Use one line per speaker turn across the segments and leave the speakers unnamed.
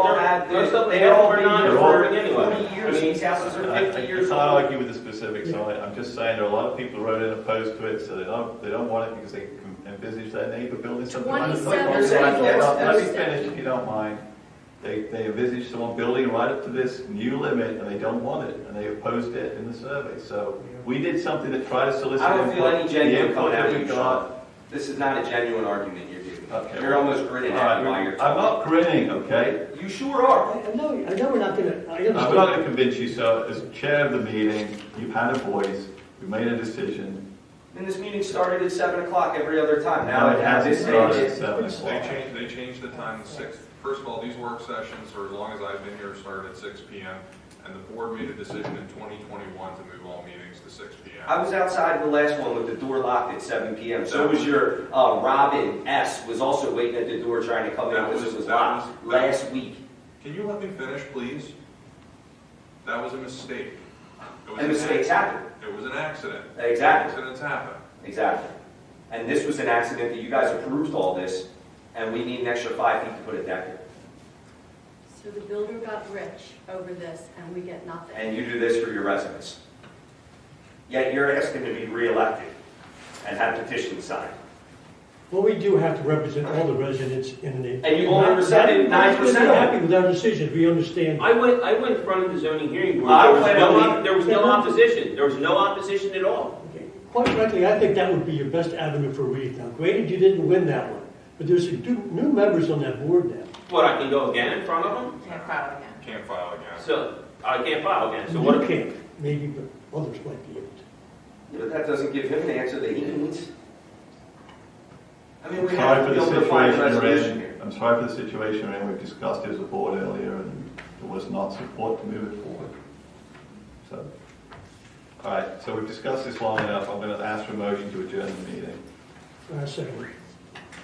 have, the-
Most of them
they all
were
been
not
here
affording
for
anyway.
forty years,
I mean,
these houses are
I-
fifty
I-
years
I can't
old.
argue with the specifics on it, I'm just saying there are a lot of people who wrote in opposed to it, so they don't, they don't want it because they can envisage their neighbor building something right up to their property
27
line. Let
North
me
Hempstead.
finish if you don't mind. They, they envisage someone building right up to this new limit and they don't want it, and they opposed it in the survey, so we did something to try to solicit.
I don't feel
input.
any
The
genuine
input
coming
that
after
we
you,
got-
Sean. This is not a genuine argument you're
Okay.
giving. You're almost grinning at
All
me
right,
while you're
I'm
talking.
not grinning, okay?
You sure are.
I I know, I know we're not gonna, I
I'm not going
understand.
to convince you, so as chair of the meeting, you've had a voice, we made a decision.
And this meeting started at seven o'clock every other time. Now
Now
it has
hasn't
this
started at
stage.
seven
They
o'clock.
changed, they changed the time to six. First of all, these work sessions, for as long as I've been here, started at six P M. And the board made a decision in twenty twenty-one to move all meetings to six P
I
M.
was outside the last one with the door locked at seven PM. So was your, uh, Robin S. was also waiting at the door trying to come in
That
because
was-
it was
that
locked
was- that-
last week.
Can you let me finish, please? That was a mistake. It was
And
an
mistakes
ac-
happen.
It was an accident.
Exactly.
Accidents happen.
Exactly. And this was an accident that you guys approved all this, and we need an extra five feet to put a deck in.
So the builder got rich over this and we get nothing.
And you do this for your residents. Yet you're asking to be reelected and have petitions signed.
Well, we do have to represent all the residents in the.
And you only represented nine percent
We're
of
happy
them.
with our decisions, we understand.
I went, I went in front of the zoning hearing board,
I
there was
plan
no,
on
op- there was no opposition, there was no opposition at all.
Quite frankly, I think that would be your best avenue for relief. Now, granted, you didn't win that one, but there's some du- new members on that board now.
What, I can go again in front of them?
Can't file again.
Can't file again.
So, I can't file again, so
You
what? if-
can't, maybe, but others might be able to.
But that doesn't give him the answer that he needs. I mean, we
Sorry
have
for
to be
the
able to find a
situation we're
resolution here.
in. I'm sorry for the situation we're in. We've discussed it as a board earlier and there was not support to move it forward. So, all right, so we've discussed this long enough. I'm going to ask for a motion to adjourn the meeting.
Uh, second,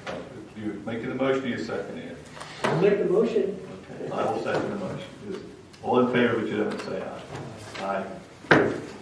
Uh, You making the motion or you seconding it?
I'll make the motion.
Okay, I will second the motion. All in favor, would you say aye? Aye.